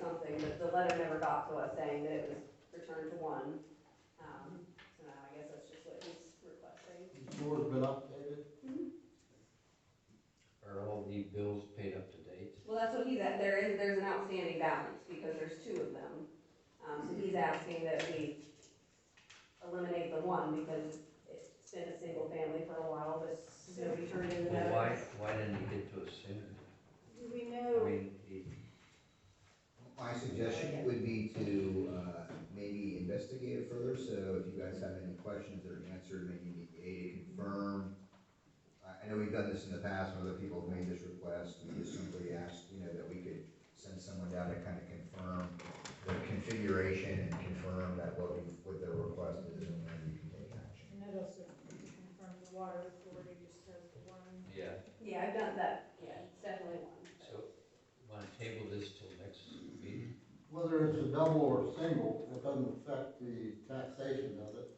something, but the letter never got to us saying that it was returned to one. Um, so now I guess that's just what he's requesting. It's yours been updated? Are all the bills paid up to date? Well, that's what he's at, there is, there's an outstanding balance, because there's two of them. Um, so he's asking that we eliminate the one, because it's been a single family for a while, but nobody turned in the Well, why, notice. why didn't he get to us sooner? Do we I know? mean, he, My suggestion would be to, uh, maybe investigate it further, so if you guys have any questions that are answered, maybe A, to confirm. I, I know we've done this in the past, when other people have made this request, we just simply asked, you know, that we could send someone down to kind of confirm the configuration and confirm that what, we- what their request is and when we can take action. And that also confirmed the water authority just has the one. yeah, Yeah, I've done that, yeah, it's definitely one. but- so, wanna table this till next meeting? Whether it's a double or a single, it doesn't affect the taxation, does it?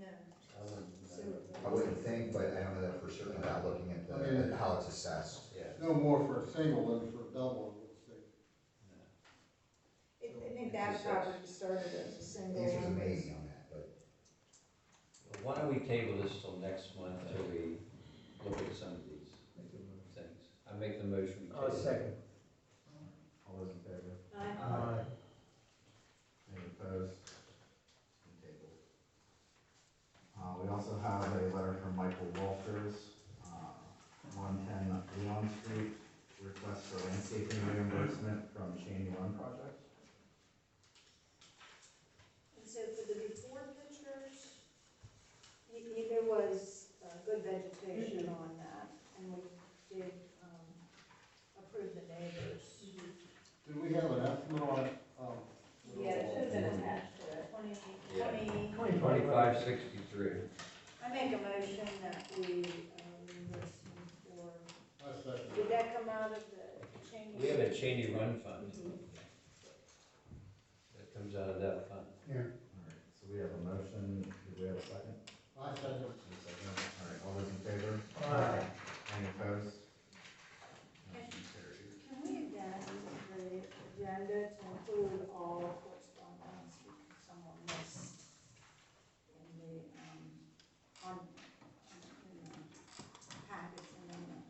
No. I wouldn't- I wouldn't- I wouldn't think, but I don't know that for certain without looking at the, at how it's assessed. Yeah. No more for a single than for a double, I would say. I I think that property started as a The single. answer's amazing on that, but Well, Why don't we table this till next month till we look at some of these things? I make the motion. we table it. all those in favor? Uh-huh. Any opposed? Tabled. Uh, we also have a letter from Michael Walters, uh, one ten Leon Street, request for landscaping reimbursement from Cheney Run Project. And so for the before pictures, y- y- there was uh, good vegetation on that, and we did um, approve the neighbors. Do we have an estimate on, um? Yeah, it should have been attached to it. Twenty, Yeah. twenty, Twenty-five sixty-three. I make a motion that we, um, listen for, I second. did that come out of the change? We have a Cheney Run Fund. That comes out of that fund. Alright, so we have a motion, do we have a second? I second. Any second? Alright, all those in favor? Aye. Any opposed? Motion carried. Can we adapt the agenda to include all correspondence someone missed in the, um, on, in the packets and then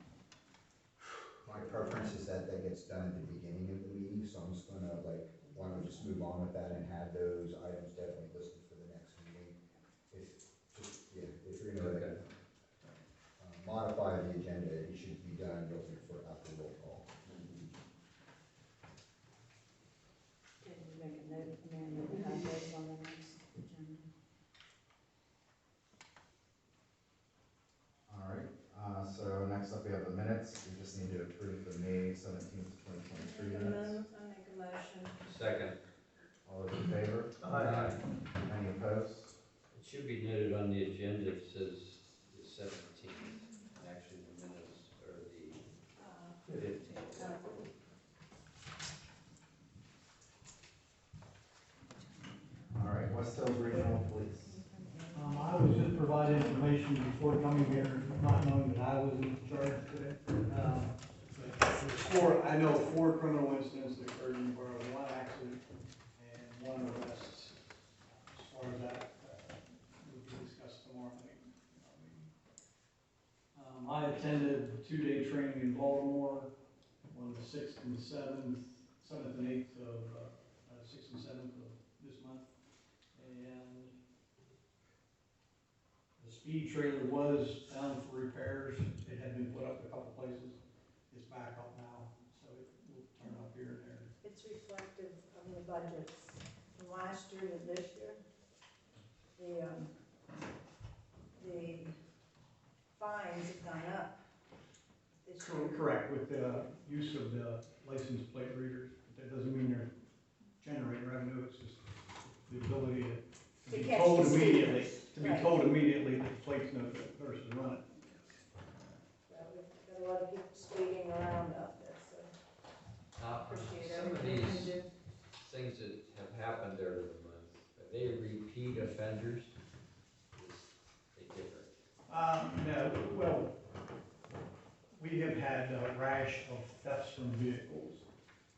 My preference is that that gets done at the beginning of the meeting, so I'm just gonna like, why don't we just move on with that and have those items definitely listed for the next meeting? If, just, yeah, if you're gonna like, uh, modify the agenda, it should be done looking for after roll call. can you make a note, Amanda, we have those on the next agenda? Alright, uh, so next up we have the minutes, we just need to approve the May seventeenth, twenty twenty-three minutes. I make a motion. Second. All those in favor? Any opposed? It should be noted on the agenda, it says the seventeenth, actually the minutes are the Uh, fifteenth. All right, West Hills Regional Police. Um, I was just providing information before coming here, not knowing that I was in charge today. Um, but there's Four, I know four criminal incidents that occurred in the borough, one accident and one arrest. As far as that, uh, will be discussed tomorrow night. Um, I attended a two-day training in Baltimore on the sixth and seventh, seventh and eighth of, uh, uh, sixth and seventh of this month. And the speed trailer was down for repairs, it had been put up a couple places, it's back up now, so it will turn up here and there. It's reflective of the budgets from last year to this year. The, um, the fines have gone up this year. Correct, with the use of the license plate readers, but that doesn't mean they're generating revenue, it's just the ability to To be catch the told speeders. immediately, to be Right. told immediately that the plate's no good versus running. Well, we've got a lot of people speeding around out there, so Uh-huh. Uh, appreciate Some of everything these you do. things that have happened over the month, are they repeat offenders? Is They differ. Uh, no, well, we have had a rash of thefts from vehicles